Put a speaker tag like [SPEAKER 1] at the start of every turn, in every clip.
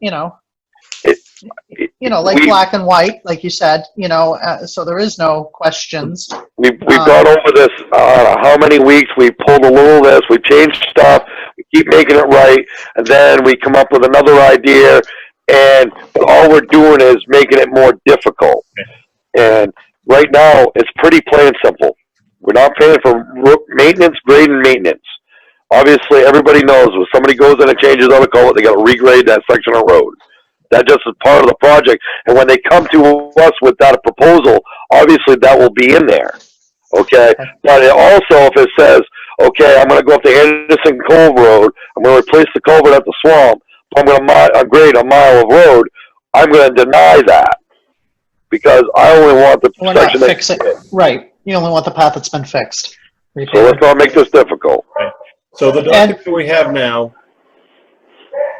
[SPEAKER 1] you know,
[SPEAKER 2] It-
[SPEAKER 1] you know, like
[SPEAKER 2] we-
[SPEAKER 1] black and white, like you said, you know, uh, so there is no questions.
[SPEAKER 2] We've, we've
[SPEAKER 1] Um,
[SPEAKER 2] gone over this, uh, how many weeks, we pulled a little of this, we changed stuff, we keep making it right, and then we come up with another idea, and all we're doing is making it more difficult. And right now, it's pretty plain and simple. We're not paying for ro- maintenance, grade and maintenance. Obviously, everybody knows when somebody goes in and changes out a culvert, they gotta regrade that section of road. That just is part of the project, and when they come to us with that proposal, obviously that will be in there. Okay, but it also if it says, okay, I'm going to go up to Anderson Cove Road, I'm going to replace the culvert at the swamp, I'm going to mi- uh, grade a mile of road, I'm going to deny that because I only want the
[SPEAKER 1] We're not
[SPEAKER 2] section that.
[SPEAKER 1] fixing, right, you only want the path that's been fixed.
[SPEAKER 2] So let's not make this difficult.
[SPEAKER 3] So the
[SPEAKER 1] And-
[SPEAKER 3] document we have now,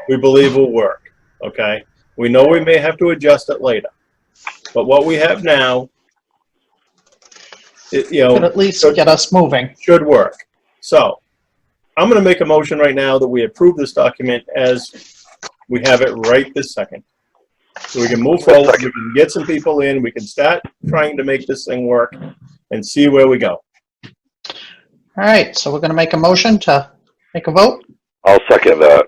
[SPEAKER 3] we believe will work, okay? We know we may have to adjust it later, but what we have now, it, you
[SPEAKER 1] Could
[SPEAKER 3] know,
[SPEAKER 1] at least get us moving.
[SPEAKER 3] should work. So, I'm gonna make a motion right now that we approve this document as we have it right this second. So we can move forward, we can get some people in, we can start trying to make this thing work and see where we go.
[SPEAKER 1] All right, so we're going to make a motion to make a vote.
[SPEAKER 2] I'll second that.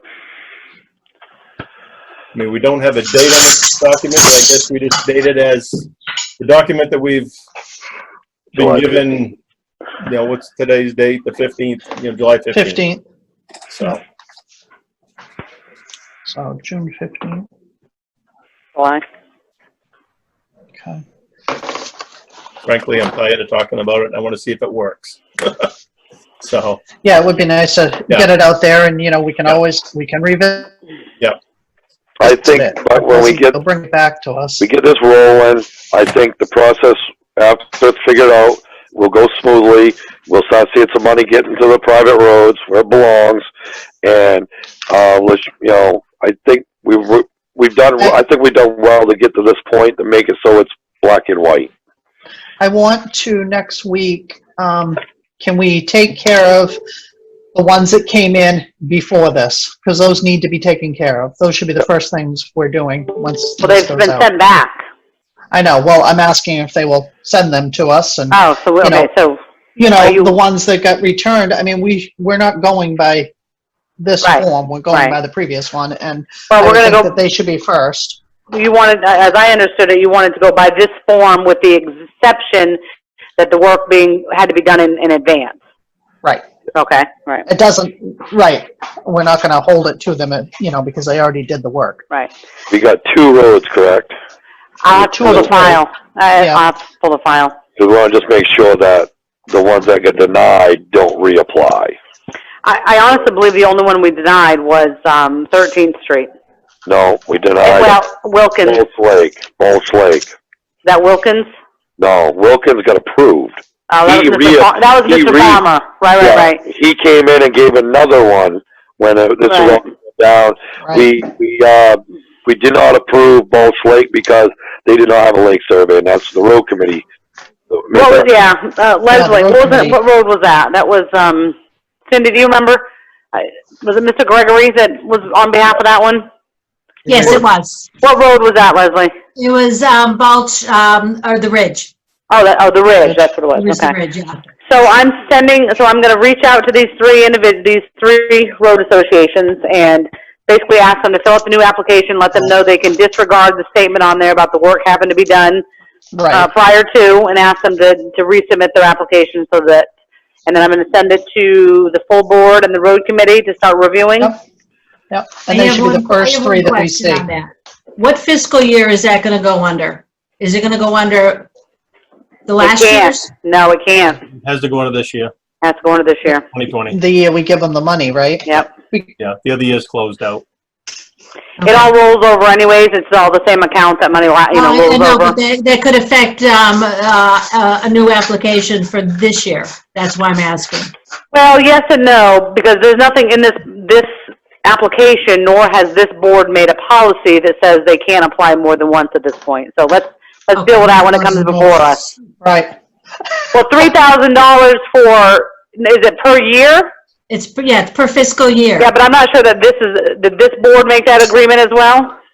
[SPEAKER 3] I mean, we don't have a date on this document, but I guess we just date it as the document that we've been
[SPEAKER 2] July
[SPEAKER 3] given, you know, what's today's date, the 15th, you know, July 15th.
[SPEAKER 1] 15th,
[SPEAKER 3] So,
[SPEAKER 1] so June 15th, okay.
[SPEAKER 3] frankly, I'm tired of talking about it, and I want to see if it works. So,
[SPEAKER 1] Yeah, it would be nice to
[SPEAKER 3] Yeah.
[SPEAKER 1] get it out there and, you know, we can always, we can revisit
[SPEAKER 2] I think
[SPEAKER 1] it.
[SPEAKER 2] but when we get
[SPEAKER 1] They'll bring it back to us.
[SPEAKER 2] we get this rolling, I think the process after it's figured out will go smoothly. We'll start seeing some money get into the private roads where it belongs, and uh, let's you know, I think we've re- we've done. I think we've done well to get to this point to make it so it's black and white.
[SPEAKER 1] I want to next week, um, can we take care of the ones that came in before this? Because those need to be taken care of. Those should be the first things we're doing once
[SPEAKER 4] Well,
[SPEAKER 1] this
[SPEAKER 4] they've
[SPEAKER 1] goes
[SPEAKER 4] been
[SPEAKER 1] out.
[SPEAKER 4] sent back.
[SPEAKER 1] I know, well, I'm asking if they will send them to us and,
[SPEAKER 4] Oh, so,
[SPEAKER 1] You know,
[SPEAKER 4] okay, so,
[SPEAKER 1] you
[SPEAKER 4] Are
[SPEAKER 1] know,
[SPEAKER 4] you-
[SPEAKER 1] the ones that got returned, I mean, we, we're not going by this
[SPEAKER 4] Right,
[SPEAKER 1] form, we're going
[SPEAKER 4] right.
[SPEAKER 1] by the previous one and I
[SPEAKER 4] well,
[SPEAKER 1] would
[SPEAKER 4] we're
[SPEAKER 1] think
[SPEAKER 4] gonna
[SPEAKER 1] that
[SPEAKER 4] go,
[SPEAKER 1] they should be first.
[SPEAKER 4] you wanted, uh, as I understood it, you wanted to go by this form with the exception that the work being, had to be done in, in advance.
[SPEAKER 1] Right.
[SPEAKER 4] Okay, right,
[SPEAKER 1] It doesn't, right, we're not gonna hold it to them, you know, because they already did the work.
[SPEAKER 4] right.
[SPEAKER 2] We got two roads, correct?
[SPEAKER 4] I'll have to pull the file. I-
[SPEAKER 1] Yeah.
[SPEAKER 4] I'll have to pull the file.
[SPEAKER 2] So we want to just make sure that the ones that get denied don't reapply.
[SPEAKER 4] I, I honestly believe the only one we denied was, um, Thirteenth Street.
[SPEAKER 2] No, we denied
[SPEAKER 4] Well, Wilkins,
[SPEAKER 2] Bulls Lake. Bulls Lake.
[SPEAKER 4] that Wilkins?
[SPEAKER 2] No, Wilkins got approved.
[SPEAKER 4] Oh, that
[SPEAKER 2] He
[SPEAKER 4] was
[SPEAKER 2] re-
[SPEAKER 4] Mr. Fa- That was
[SPEAKER 2] he
[SPEAKER 4] Mr.
[SPEAKER 2] re-
[SPEAKER 4] Farmer, right,
[SPEAKER 2] Yeah,
[SPEAKER 4] right, right.
[SPEAKER 2] He came in and gave another one when uh, this was
[SPEAKER 4] Right.
[SPEAKER 2] all down.
[SPEAKER 1] Right.
[SPEAKER 2] We we uh, we did not approve Bulch Lake because they did not have a lake survey, and that's the road committee.
[SPEAKER 4] What was, yeah, uh, Leslie,
[SPEAKER 1] the road
[SPEAKER 4] what was
[SPEAKER 1] committee.
[SPEAKER 4] it, what road was that? That was, um, Cindy, do you remember? I- Was it Mr. Gregory that was on behalf of that one?
[SPEAKER 5] Yes, it was.
[SPEAKER 4] What road was that, Leslie?
[SPEAKER 5] It was um, Balch, um, or the Ridge.
[SPEAKER 4] Oh, that, oh, the Ridge, that's what
[SPEAKER 5] It
[SPEAKER 4] it
[SPEAKER 5] was
[SPEAKER 4] was,
[SPEAKER 5] the
[SPEAKER 4] okay.
[SPEAKER 5] Ridge, yeah.
[SPEAKER 4] So I'm sending, so I'm gonna reach out to these three individ, these three road associations and basically ask them to fill out the new application, let them know they can disregard the statement on there about the work having to be done uh,
[SPEAKER 1] Right,
[SPEAKER 4] prior to and ask them to, to resubmit their application so that, and then I'm gonna send it to the full board and the road committee to start reviewing.
[SPEAKER 1] Yep. yep,
[SPEAKER 5] I
[SPEAKER 1] and they
[SPEAKER 5] have
[SPEAKER 1] should be
[SPEAKER 5] one-
[SPEAKER 1] the
[SPEAKER 5] I
[SPEAKER 1] first
[SPEAKER 5] have
[SPEAKER 1] three
[SPEAKER 5] one
[SPEAKER 1] that we
[SPEAKER 5] question
[SPEAKER 1] see.
[SPEAKER 5] on that. What fiscal year is that going to go under? Is it going to go under the
[SPEAKER 4] It
[SPEAKER 5] last
[SPEAKER 4] can't.
[SPEAKER 5] year's?
[SPEAKER 4] No, it can't.
[SPEAKER 3] has to go into this year,
[SPEAKER 4] That's going to this year.
[SPEAKER 3] 2020.
[SPEAKER 1] The year we give them the money, right?
[SPEAKER 4] Yep.
[SPEAKER 3] Yeah, the other year's closed out.
[SPEAKER 4] It all rolls over anyways. It's all the same account that money, la- you know,
[SPEAKER 5] Well, Oh, I- I
[SPEAKER 4] rolls
[SPEAKER 5] know,
[SPEAKER 4] over.
[SPEAKER 5] but That that could affect um, uh, uh, a new application for this year. That's why I'm asking.
[SPEAKER 4] Well, yes and no, because there's nothing in this, this application, nor has this board made a policy that says they can't apply more than once at this point. So let's, let's deal with that when it comes before us.
[SPEAKER 1] Right,
[SPEAKER 4] Well, $3,000 for, is it per year?
[SPEAKER 5] It's, per- yeah, it's per fiscal year.
[SPEAKER 4] Yeah, but I'm not sure that this is, did this board make that agreement as well?